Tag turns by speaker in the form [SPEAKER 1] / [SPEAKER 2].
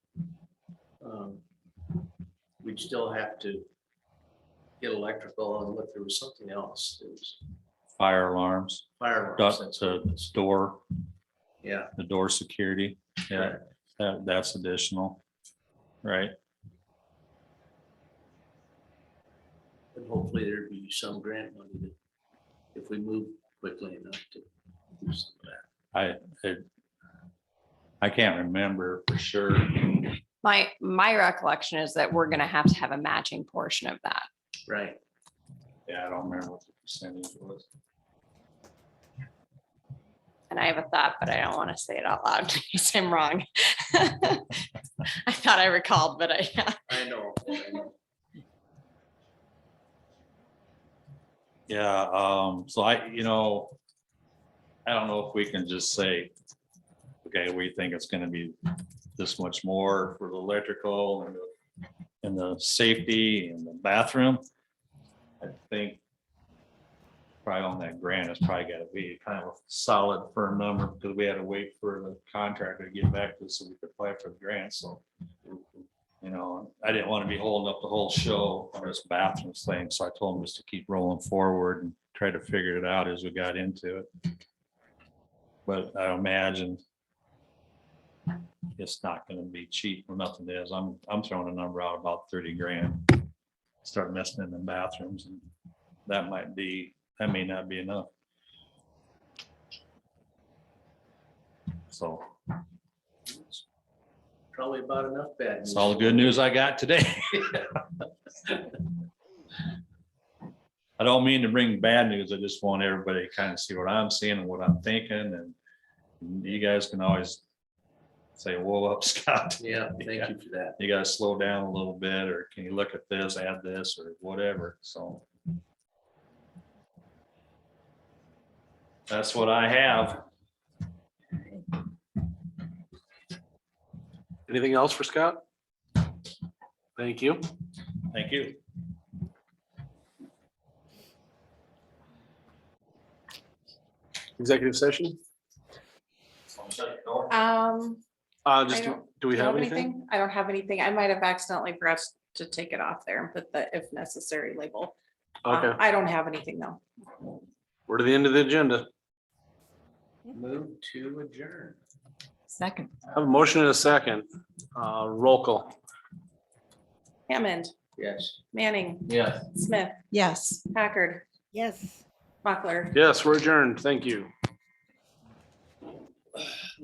[SPEAKER 1] um, still have to get electrical and look, there was something else, there was
[SPEAKER 2] fire alarms,
[SPEAKER 1] fire
[SPEAKER 2] duck
[SPEAKER 1] alarms, that's,
[SPEAKER 2] to door,
[SPEAKER 1] yeah.
[SPEAKER 2] the door security. Yeah, that, that's additional, right?
[SPEAKER 1] And hopefully there'd be some grant money that, if we move quickly enough to. do some of that.
[SPEAKER 2] I, it- I can't remember for sure.
[SPEAKER 3] My, my recollection is that we're gonna have to have a matching portion of that.
[SPEAKER 1] Right,
[SPEAKER 2] Yeah, I don't remember what the percentage was.
[SPEAKER 3] And I have a thought, but I don't want to say it out loud in case I'm wrong. I thought I recalled, but I,
[SPEAKER 1] I know. I know.
[SPEAKER 2] Yeah, um, so I, you know, I don't know if we can just say, okay, we think it's gonna be this much more for the electrical and the, and the safety and the bathroom. I think probably on that grant, it's probably gotta be kind of a solid firm number, because we had to wait for the contractor to get back to us so we could apply for the grant, so. You know, I didn't want to be holding up the whole show on this bathroom thing, so I told him just to keep rolling forward and try to figure it out as we got into it. But I imagine it's not gonna be cheap or nothing is. I'm, I'm throwing a number out about thirty grand. Start messing in the bathrooms and that might be, that may not be enough. So
[SPEAKER 1] Probably about enough bad.
[SPEAKER 2] it's
[SPEAKER 1] news.
[SPEAKER 2] all the good news I got today. I don't mean to bring bad news. I just want everybody to kind of see what I'm seeing and what I'm thinking and you guys can always say, whoa, up Scott,
[SPEAKER 1] Yeah, thank you for that.
[SPEAKER 2] you gotta slow down a little bit, or can you look at this, add this, or whatever, so. That's what I have.
[SPEAKER 4] Anything else for Scott? Thank you.
[SPEAKER 2] Thank you.
[SPEAKER 4] Executive session?
[SPEAKER 3] um,
[SPEAKER 4] Uh, just,
[SPEAKER 3] I don't-
[SPEAKER 4] do we have anything?
[SPEAKER 3] I don't have anything. I might have accidentally pressed to take it off there and put the if necessary label. Um,
[SPEAKER 4] Okay,
[SPEAKER 3] I don't have anything though.
[SPEAKER 4] we're to the end of the agenda.
[SPEAKER 1] Move to adjourn.
[SPEAKER 3] Second.
[SPEAKER 4] Have a motion and a second. Uh, roll call.
[SPEAKER 3] Hammond,
[SPEAKER 1] Yes.
[SPEAKER 3] Manning,
[SPEAKER 1] Yes.
[SPEAKER 3] Smith,
[SPEAKER 5] Yes.
[SPEAKER 3] Packard,
[SPEAKER 5] Yes.
[SPEAKER 3] Mochler.
[SPEAKER 4] Yes, we're adjourned. Thank you.